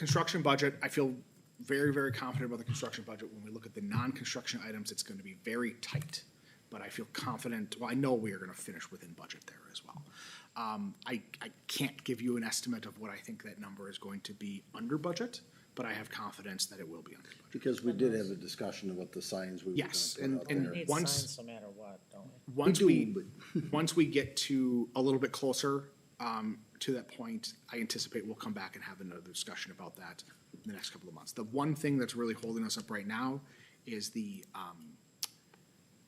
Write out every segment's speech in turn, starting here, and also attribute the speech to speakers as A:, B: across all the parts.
A: Construction budget, I feel very, very confident about the construction budget. When we look at the non-construction items, it's gonna be very tight. But I feel confident, well, I know we are gonna finish within budget there as well. Um, I, I can't give you an estimate of what I think that number is going to be under budget, but I have confidence that it will be under budget.
B: Because we did have a discussion about the signs we were gonna
A: Yes,
B: put
A: and-
B: out
A: and-
B: there.
C: Need
A: Once-
C: signs no matter what, don't we?
A: Once
B: do,
A: we, once we get to a little bit closer, um, to that point, I anticipate we'll come back and have another discussion about that in the next couple of months. The one thing that's really holding us up right now is the, um,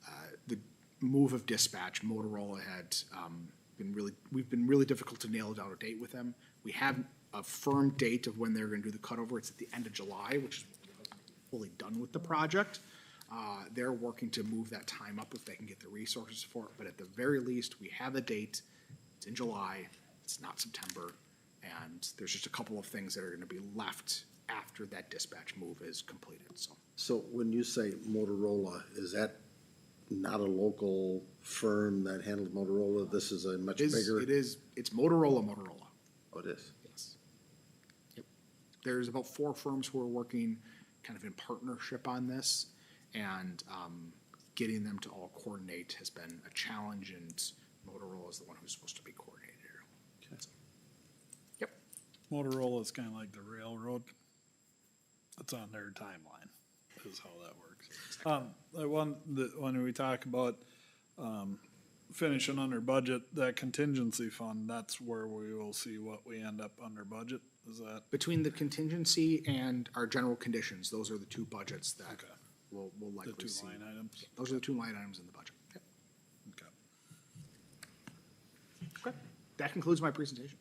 A: uh, the move of dispatch. Motorola had, um, been really, we've been really difficult to nail down a date with them. We have a firm date of when they're gonna do the cutover. It's at the end of July, which is fully done with the project. Uh, They're working to move that time up if they can get the resources for it, but at the very least, we have a date. It's in July, it's not September, and there's just a couple of things that are gonna be left after that dispatch move is completed, so.
B: So when you say Motorola, is that not a local firm that handles Motorola? This is a much
A: It is,
B: bigger.
A: it is, it's Motorola, Motorola,
B: Oh, it is.
A: yes. Yep. There's about four firms who are working kind of in partnership on this, and um, getting them to all coordinate has been a challenge, and Motorola is the one who's supposed to be coordinated. Yep.
D: Motorola is kind of like the railroad. It's on their timeline, is how that works. Um, the one, the, when we talk about, um, finishing under budget, that contingency fund, that's where we will see what we end up under budget, is that?
A: Between the contingency and our general conditions, those are the two budgets that
D: Okay.
A: we'll, we'll
D: The
A: likely
D: two
A: see.
D: line items?
A: Those are the two line items in the budget.
D: Okay.
A: Okay. That concludes my presentation.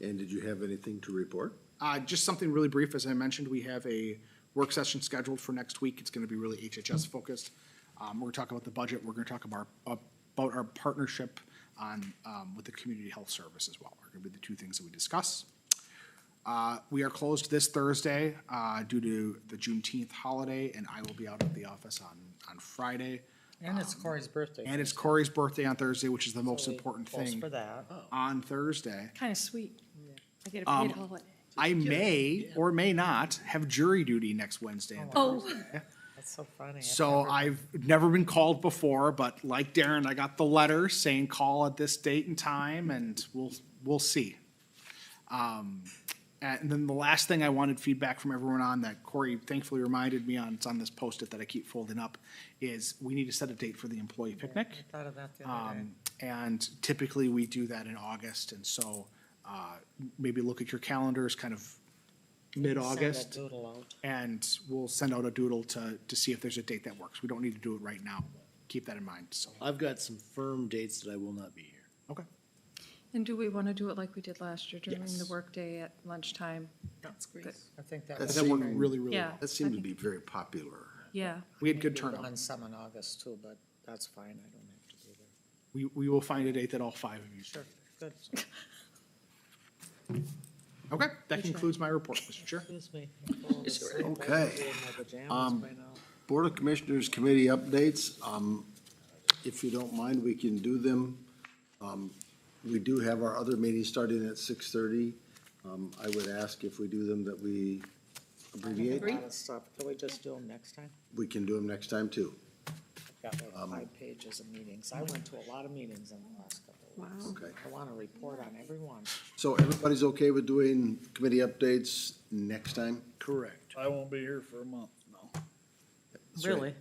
B: And did you have anything to report?
A: Uh, just something really brief, as I mentioned, we have a work session scheduled for next week. It's gonna be really HHS focused. Um, we're gonna talk about the budget, we're gonna talk about, our- uh, about our partnership on, um, with the community health service as well. Are gonna be the two things that we discuss. Uh, we are closed this Thursday, uh, due to the Juneteenth holiday, and I will be out of the office on, on Friday.
C: And it's Corey's birthday.
A: And it's Corey's birthday on Thursday, which is the most
C: so we
A: important
C: post
A: thing.
C: For that. Oh,
A: On Thursday.
E: Kind of sweet. I get a paid holiday.
A: I may or may not have jury duty next Wednesday and
E: Oh,
C: That's so funny. I've
A: So
C: never-
A: I've never been called before, but like Darren, I got the letter saying call at this date and time and we'll, we'll see. Um, and then the last thing I wanted feedback from everyone on that Corey thankfully reminded me on, it's on this post-it that I keep folding up, is we need to set a date for the employee picnic.
C: I Thought of that the other day.
A: Um, and typically we do that in August and so, uh, maybe look at your calendars kind of mid-August.
C: Send a doodle out.
A: And we'll send out a doodle to, to see if there's a date that works. We don't need to do it right now. Keep that in mind, so.
F: I've got some firm dates that I will not be here.
A: Okay.
E: and do we want to do it like we did last year during the
A: Yes.
E: workday at lunchtime?
A: That's great.
E: Good.
C: I think that
B: That's
C: was.
A: That worked
B: seemed-
A: really, really
E: Yeah.
A: well.
B: That seemed to be very popular.
E: Yeah.
A: We had good
C: maybe
A: turnout.
C: On some in August too, but that's fine. I don't have to be there.
A: We, we will find a date that all five of you.
C: Sure, good.
A: Okay, that concludes my report, Mr. Chair.
C: Excuse me.
B: Okay.
C: Um.
B: Board of Commissioners Committee updates, um, if you don't mind, we can do them. Um, we do have our other meeting starting at six thirty. Um, I would ask if we do them that we abbreviate.
C: lot of stuff. Can we just do them next time?
B: We can do them next time too.
C: Got
A: Um,
C: like five pages of meetings. I went to a lot of meetings in the last couple of weeks.
E: Wow.
B: Okay.
C: I want to report on every one.
B: So everybody's okay with doing committee updates next time?
F: Correct.
D: I won't be here for a month, no.
B: That's right.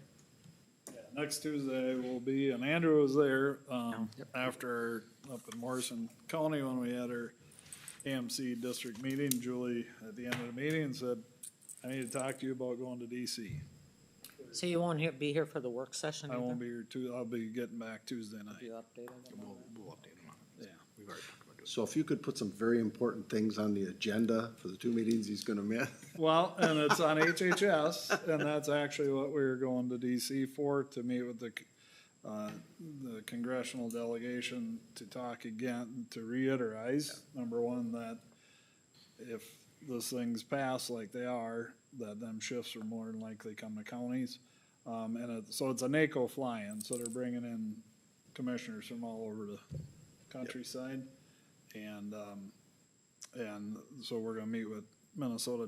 D: Yeah, Next Tuesday will be, and Andrew was there, um, after up in Morrison County when we had our AMC district meeting. Julie, at the end of the meeting, said, I need to talk to you about going to DC.
C: So you won't he- be here for the work session
D: I
C: either?
D: won't be here too, I'll be getting back Tuesday night.
C: You updated them?
A: We'll, we'll update them on it.
D: Yeah.
A: We've already talked about doing
B: So if you could put some very important things on the agenda for the two meetings he's gonna miss.
D: Well, and it's on HHS, and that's actually what we were going to DC for, to meet with the, uh, the congressional delegation to talk again, to reiterate, number one, that if those things pass like they are, that them shifts are more than likely come to counties. Um, and it, so it's a NACO fly-in, so they're bringing in commissioners from all over the countryside. And, um, and so we're gonna meet with Minnesota